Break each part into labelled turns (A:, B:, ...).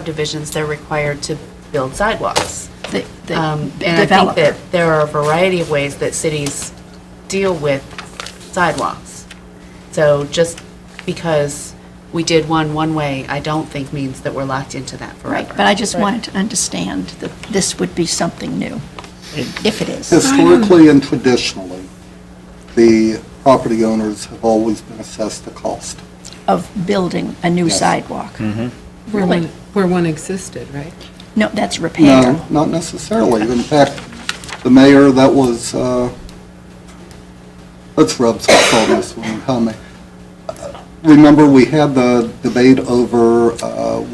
A: subdivisions, they're required to build sidewalks.
B: the the
A: Um, And I think
B: developer.
A: that there are a variety of ways that cities deal with sidewalks. So just because we did one one way, I don't think means that we're locked into that
B: Right,
A: forever.
B: but I just wanted to understand that this would be something new, if it is.
C: Historically and traditionally, the property owners have always been assessed the cost.
B: of building a new
C: Yes. Mm-hmm.
B: sidewalk.
D: Where one,
B: Really?
D: where one existed, right?
B: No, that's repair.
C: No, not necessarily. In fact, the mayor, that was, uh, let's rub salt on this one, how many? Remember, we had the debate over, uh,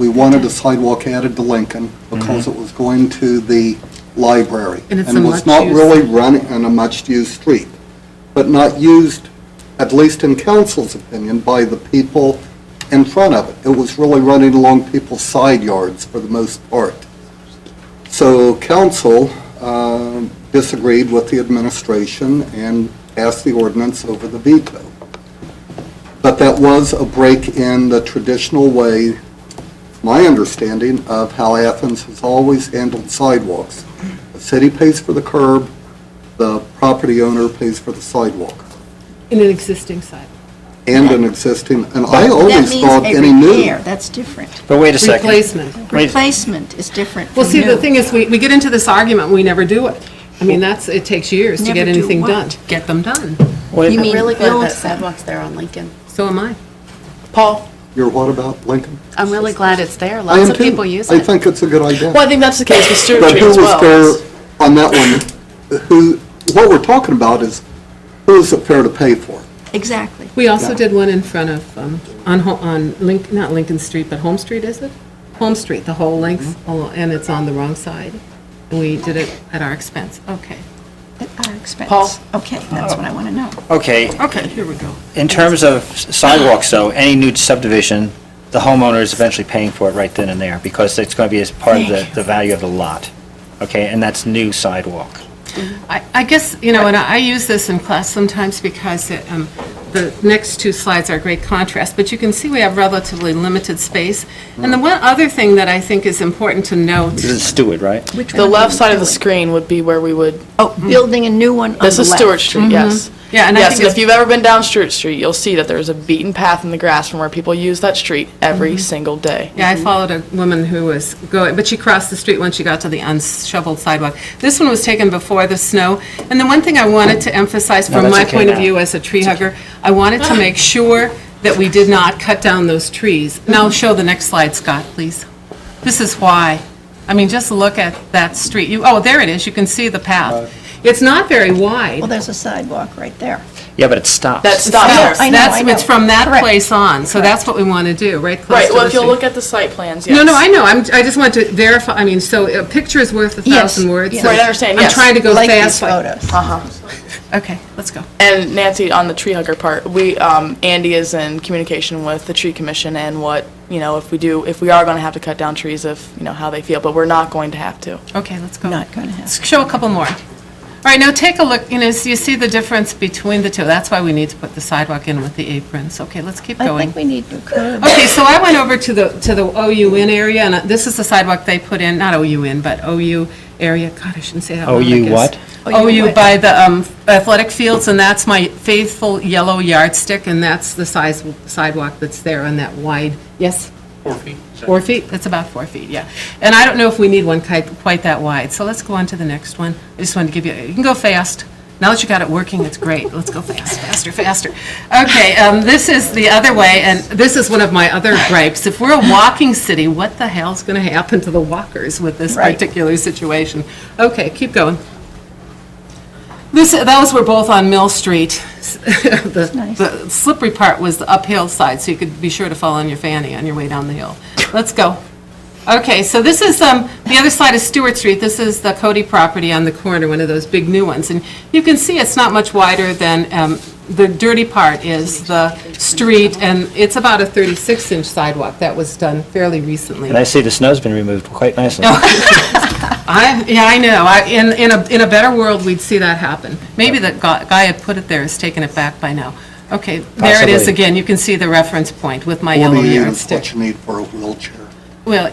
C: we wanted a sidewalk added to Lincoln because it was going to the library.
D: And it's a
C: was not
D: much-used-
C: really running on a much-used street, but not used, at least in council's opinion, by the people in front of it. It was really running along people's side yards for the most part. So council um, disagreed with the administration and passed the ordinance over the veto. But that was a break in the traditional way, my understanding, of how Athens has always handled sidewalks. The city pays for the curb, the property owner pays for the sidewalk,
D: In an existing site.
C: and an existing, and I always thought
B: That
C: any
B: means a
C: new.
B: repair, that's different.
E: But wait a second.
D: Replacement.
E: Wait.
B: Replacement is different
D: Well,
B: from
D: see, the
B: new.
D: thing is, we, we get into this argument, we never do it. I mean, that's, it takes years to get
B: Never do
D: anything
B: what?
D: done. Get them done.
E: Wait,
B: You
A: I'm
B: mean
A: really glad
B: build
A: that
B: them.
A: sidewalks there on Lincoln.
D: So am I.
A: Paul,
C: You're what about Lincoln?
A: I'm really glad it's there.
C: I
A: Lots
C: am
A: of
C: too.
A: people use
C: I
A: it.
C: think it's a good idea.
F: Well, I think that's the case with Stewart
C: But
F: Street
C: who
F: as
C: was
F: well.
C: there on that one? Who, what we're talking about is, who is it fair to pay for?
B: Exactly.
D: We also
C: Yeah.
D: did one in front of, um, on, Ho- on Link, not Lincoln Street, but Home Street, is it? Home Street, the whole length, al- and it's on the wrong side. And we did it at our expense. Oh, Okay.
B: At our expense.
F: Paul?
B: Okay, that's what I want to know.
E: Okay,
D: Okay, here we go.
E: in terms of sidewalks, though, any new subdivision, the homeowner is eventually paying for it right then and there, because it's going to be as part of the,
B: Thank you.
E: the value of the lot, okay? And that's new sidewalk.
D: I I guess, you know, and I I use this in class sometimes because it, um, the next two slides are great contrast, but you can see we have relatively limited space. And the one other thing that I think is important to note,
E: This is Stewart, right?
B: Which
F: The
B: one
F: left
B: are we
F: side of the
B: doing?
F: screen would be where we would,
B: Oh, building a new one on the left.
F: this is Stewart Street, yes.
D: Mm-hmm. Yeah, and I
F: Yes,
D: think
F: and
D: it's-
F: if you've ever been down Stewart Street, you'll see that there's a beaten path in the grass from where people use that street every single day.
D: Mm-hmm. yeah, I followed a woman who was going, but she crossed the street when she got to the unshoveled sidewalk. This one was taken before the snow. And the one thing I wanted to emphasize
E: No,
D: from
E: that's
D: my
E: okay
D: point of
E: now.
D: view as a tree hugger, I wanted to make sure that we did not cut down those trees. Now, show the next slide, Scott, please. This is why. I mean, just look at that street. You, oh, there it is. You can see the path. It's not very
B: Well,
D: wide.
B: there's a sidewalk right there.
E: Yeah, but it stops.
F: That stops there.
B: I know,
D: That's-
B: I know.
D: It's from that
B: Correct.
D: place on, so that's what we want to do, right? close
F: Right,
D: to
F: well,
D: the
F: if you'll
D: street.
F: look at the site plans, yes.
D: No, no, I know, I'm, I just want to verify, I mean, so a picture is worth a
B: Yes,
D: thousand words.
B: yes.
D: so
F: Right, I understand, yes.
D: I'm trying to go
B: Like these
D: fast.
B: photos.
D: Okay, let's go.
F: And Nancy, on the tree hugger part, we, um, Andy is in communication with the tree commission and what, you know, if we do, if we are gonna have to cut down trees, if, you know, how they feel, but we're not going to have to.
D: Okay, let's go.
B: Not going to happen.
D: Let's show a couple more. All right, now take a look, you know, so you see the difference between the two. That's why we need to put the sidewalk in with the aprons. Okay, let's keep
B: I
D: going.
B: think we need new curb.
D: Okay, so I went over to the, to the OUN area, and uh, this is the sidewalk they put in, not OUN, but OU area, God, I shouldn't say that. word, I
E: OU
D: guess.
E: what?
B: OU
D: OU
B: what?
D: by the um, athletic fields, and that's my faithful yellow yardstick, and that's the size sidewalk that's there on that wide, yes?
G: Four feet.
D: Four feet, that's about four feet, yeah. And I don't know if we need one quite, quite that wide, so let's go on to the next one. I just wanted to give you, you can go fast. Now that you got it working, it's great. Let's go fast, faster, faster. Okay, um, this is the other way, and this is one of my other gripes. If we're a walking city, what the hell's going to happen to the walkers with this
B: Right.
D: particular situation? Okay, keep going. This, those were both on Mill Street. The
B: nice.
D: the slippery part was the uphill side, so you could be sure to fall on your fanny on your way down the hill. Let's go. Okay, so this is, um, the other side is Stewart Street. This is the Cody property on the corner, one of those big new ones. And you can see it's not much wider than, um, the dirty part is the street, and it's about a 36-inch sidewalk that was done fairly recently.
E: And I see the snow's been removed quite nicely.
D: I, yeah, I know. I, in, in a, in a better world, we'd see that happen. Maybe the gu- guy had put it there has taken it back by now. Okay, there it is
E: Possibly.
D: again. You can see the reference point with my yellow
C: Forty-eight is
D: yardstick.
C: what you need for a wheelchair.
D: Well,